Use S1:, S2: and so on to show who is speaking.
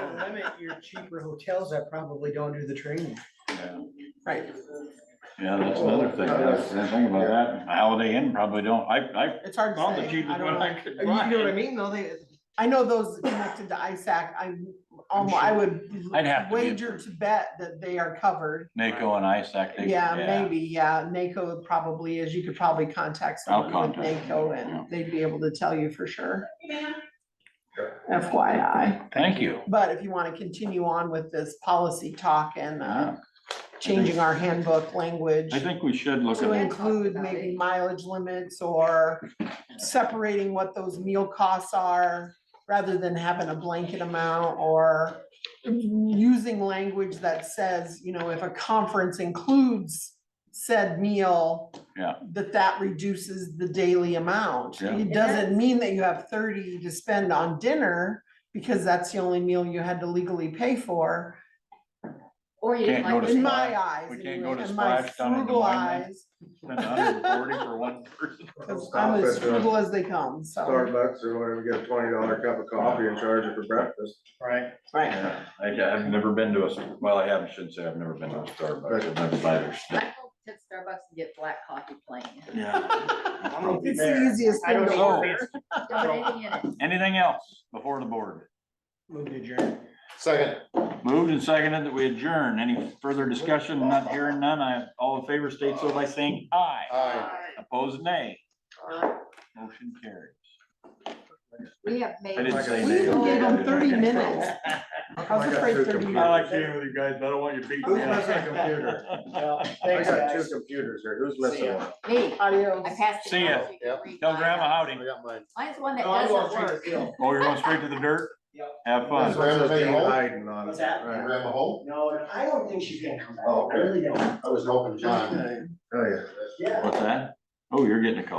S1: I'm at your cheaper hotels that probably don't do the training.
S2: Yeah,
S3: Right,
S2: Yeah, that's another thing, that's, the thing about that, Holiday Inn probably don't, I,
S3: it's hard
S2: I
S3: to
S2: found the
S3: say. I
S2: cheapest
S3: don't
S2: one
S3: know.
S2: I could
S1: You know what I
S2: find.
S1: mean, though, they,
S3: I know those connected to ISAC, I,
S1: I'm
S3: almost,
S1: sure.
S3: I would
S2: I'd have to be
S3: wager to bet that they are covered.
S2: NACO and ISAC, they,
S3: Yeah,
S2: yeah,
S3: maybe, yeah, NACO probably is, you could probably contact
S2: I'll
S3: someone with
S2: contact
S3: NACO
S2: them, yeah.
S3: and they'd be able to tell you for sure. FYI,
S2: thank you.
S3: but if you wanna continue on with this policy talk and, uh,
S2: Yeah.
S3: changing our handbook language.
S2: I think we should look
S3: To
S2: at,
S3: include maybe mileage limits or separating what those meal costs are, rather than having a blanket amount or using language that says, you know, if a conference includes said meal,
S2: Yeah.
S3: that that reduces the daily amount.
S2: Yeah.
S3: It doesn't mean that you have thirty to spend on dinner, because that's the only meal you had to legally pay for.
S4: Or you
S2: Can't go
S4: might
S2: to
S3: In
S4: just
S2: Splash.
S3: my eyes.
S2: We can't
S3: anyway,
S2: go to
S3: in my
S2: Splash down in Des
S3: frugal
S2: Moines, then?
S3: eyes,
S2: spend hundred and forty for one person.
S3: Cause I'm
S5: Stop
S3: as
S5: at the
S3: frugal as they come, so,
S5: Starbucks or whatever, get a twenty dollar cup of coffee and charge it for breakfast.
S1: right,
S3: right,
S2: Yeah, I, I've never been to a, well, I haven't, shouldn't say I've never been to a Starbucks, I've never bought their
S4: I
S2: stuff.
S4: go to Starbucks and get black coffee plain.
S2: Yeah.
S3: it's the easiest
S1: I
S3: thing
S1: don't
S3: to
S2: know.
S3: order.
S4: Don't any in it.
S2: Anything else before the board?
S1: move to adjourn.
S5: Second.
S2: Moved and seconded that we adjourn. Any further discussion? Not hearing none. I, all in favor state so by saying aye.
S5: Aye.
S2: Opposed, nay. Motion carried.
S4: We have made.
S2: I didn't say
S3: We
S2: nay.
S3: even gave them thirty minutes.
S1: Oh,
S3: I was
S5: I got
S3: afraid
S5: two
S3: thirty
S5: computers.
S3: minutes.
S5: I
S2: with you guys, I don't want you beating
S5: Who's missing a computer? I
S1: Thanks,
S5: got two
S1: guys.
S5: computers here. Who's missing one?
S4: Me,
S3: Adios.
S4: I passed it.
S2: See ya.
S4: on so you can
S5: Yep.
S4: read
S2: Tell
S4: mine.
S2: grandma howdy.
S5: got mine.
S4: Mine's one that
S1: Oh, I'm going
S4: doesn't
S1: straight to
S4: work.
S1: field.
S2: Oh, you're going straight to the dirt?
S1: Yep.
S2: Have
S5: This
S2: fun.
S5: one's
S6: Grandma
S5: being
S6: home?
S5: hiding on
S6: What's
S5: it.
S6: that?
S5: Right.
S6: Grandma home?
S1: No, I don't think she's gonna come back,
S6: Oh,
S1: I
S6: okay.
S1: really don't.
S6: I was hoping John.
S5: Oh, yeah.
S1: Yeah.
S2: What's that? Oh, you're getting a call.